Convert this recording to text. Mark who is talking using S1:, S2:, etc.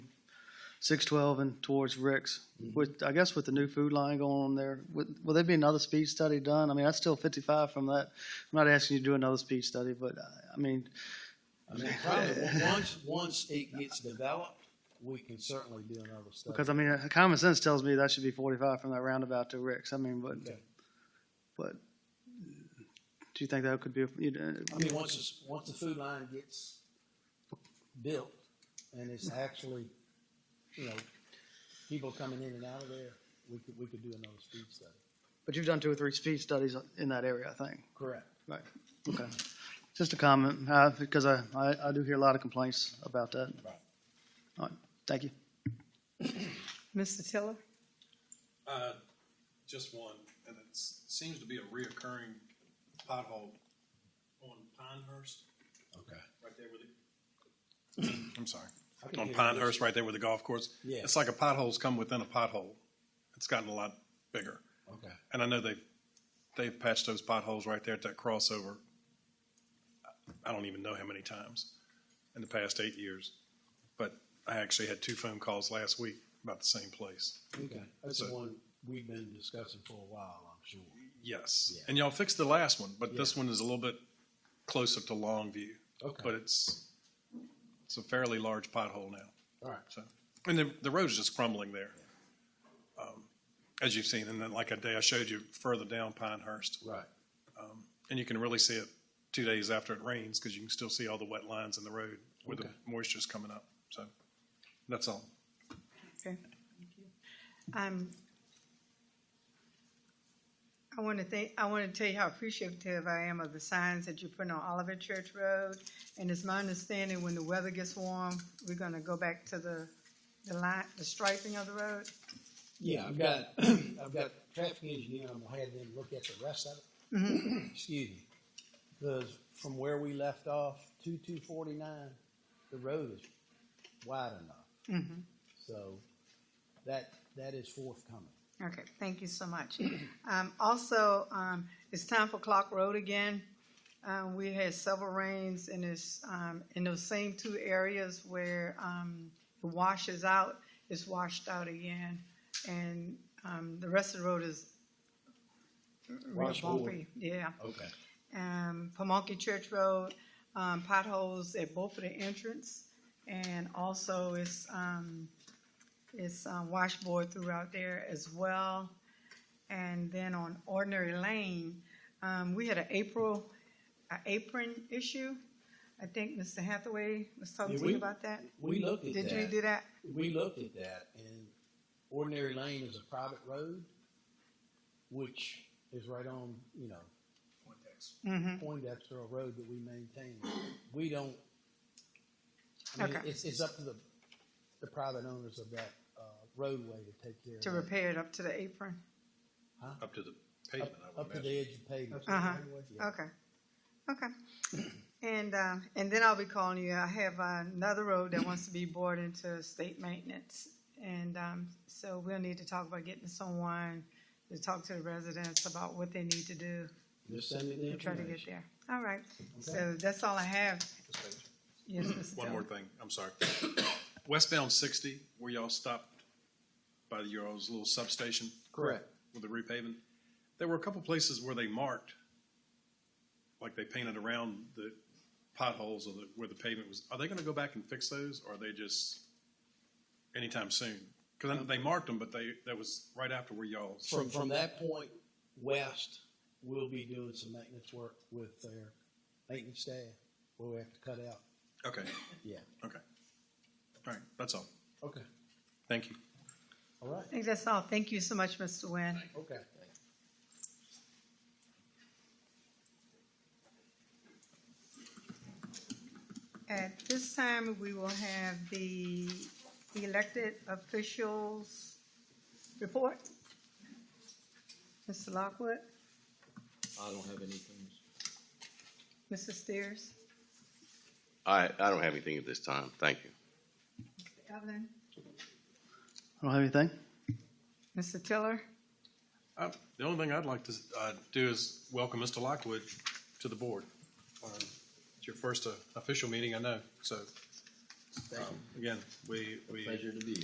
S1: six twelve and towards Rick's. With, I guess with the new food line going on there, would, will there be another speed study done? I mean, that's still fifty-five from that. I'm not asking you to do another speed study, but I- I mean,
S2: I mean, probably, once, once it gets developed, we can certainly do another study.
S1: because I mean, uh, common sense tells me that should be forty-five from that roundabout to Rick's. I mean, but,
S2: Okay.
S1: but do you think that could be, you uh, know,
S2: I mean, once it's, once the food line gets built and it's actually, you know, people coming in and out of there, we could, we could do another speed study.
S1: but you've done two or three speed studies in that area, I think.
S2: Correct.
S1: Right, okay. Just a comment, uh, because I, I, I do hear a lot of complaints about that.
S2: Right.
S1: All right, thank you.
S3: Mr. Tiller?
S4: Uh, just one, and it s- seems to be a reoccurring pothole on Pinehurst,
S2: Okay.
S4: right there with the. I'm sorry,
S2: can
S4: on
S2: hear
S4: Pinehurst, right there with the golf course.
S2: Yeah.
S4: It's like a pothole's come within a pothole. It's gotten a lot bigger,
S2: Okay.
S4: and I know they've, they've patched those potholes right there at that crossover. I- I don't even know how many times in the past eight years, but I actually had two phone calls last week about the same place.
S2: Okay. That's the
S4: So-
S2: one we've been discussing for a while, I'm sure.
S4: Yes.
S2: Yeah.
S4: And y'all fixed the last one, but this one is a little bit closer to Longview.
S2: Okay.
S4: But it's, it's a fairly large pothole now,
S2: All right.
S4: so. And the, the road's just crumbling there. um, As you've seen, and then like a day I showed you further down Pinehurst.
S2: Right.
S4: And you can really see it two days after it rains, because you can still see all the wet lines in the road where the
S2: Okay.
S4: moisture's coming up, so. That's all.
S3: Okay. Um, I want to thank, I want to tell you how appreciative I am of the signs that you put on Oliver Church Road. And it's my understanding when the weather gets warm, we're gonna go back to the, the line, the striping of the road.
S2: Yeah, I've got, I've got traffic engineer, I'm gonna have them look at the rest of it. Excuse me. Because from where we left off, two two forty-nine, the road is wide enough. So that, that is forthcoming.
S3: Okay, thank you so much. Um, also, um, it's time for Clock Road again. Um, we had several rains and it's, um, in those same two areas where, um, it washes out, it's washed out again. And, um, the rest of the road is real
S2: Wash forward.
S3: bumpy, yeah.
S2: Okay.
S3: Um, Pamunkey Church Road, um, potholes at both of the entrance. And also it's, um, it's um, washboard throughout there as well. And then on Ordinary Lane, um, we had an April, an apron issue. I think Mr. Hathaway was talking
S2: Yeah,
S3: to
S2: we-
S3: you about that.
S2: We looked at that.
S3: Did you do that?
S2: We looked at that, and Ordinary Lane is a private road, which is right on, you know,
S3: Mm-hmm.
S2: Poindexter Road that we maintain. We don't, I mean,
S3: Okay.
S2: it's, it's up to the, the private owners of that, uh, roadway to take care of.
S3: To
S2: that.
S3: repair it up to the apron?
S4: Up to the
S2: Up- Up to the edge of pavement.
S3: Uh-huh.
S2: Yeah.
S3: Okay, okay. And, uh, and then I'll be calling you. I have another road that wants to be bored into state maintenance. And, um, so we'll need to talk about getting someone to talk to the residents about what they need to do
S2: Just send me the
S3: to Uh, try to get
S2: information.
S3: there. All right, so that's all I have. Yes, Mr.
S4: One more
S3: Dillon.
S4: thing, I'm sorry. Westbound sixty, where y'all stopped by your all's little substation
S2: Correct.
S4: with the repaving, there were a couple places where they marked, like they painted around the potholes or the, where the pavement was. Are they gonna go back and fix those, or are they just anytime soon? Cause I- they marked them, but they, that was right after where y'all,
S2: From, from that point west, we'll be doing some maintenance work with their maintenance staff, where we have to cut out.
S4: okay,
S2: Yeah.
S4: okay. All right, that's all.
S2: Okay.
S4: Thank you.
S2: All right.
S3: I think that's all. Thank you so much, Mr. Nguyen.
S2: Okay.
S3: At this time, we will have the elected officials report. Mr. Lockwood,
S5: I don't have anything.
S3: Mr. Steers,
S5: I, I don't have anything at this time. Thank you.
S3: Evelyn,
S1: I don't have anything.
S3: Mr. Tiller.
S4: Uh, The only thing I'd like to uh, do is welcome Mr. Lockwood to the board. Um, It's your first uh, official meeting, I know, so. um, Again, we, we.
S5: to be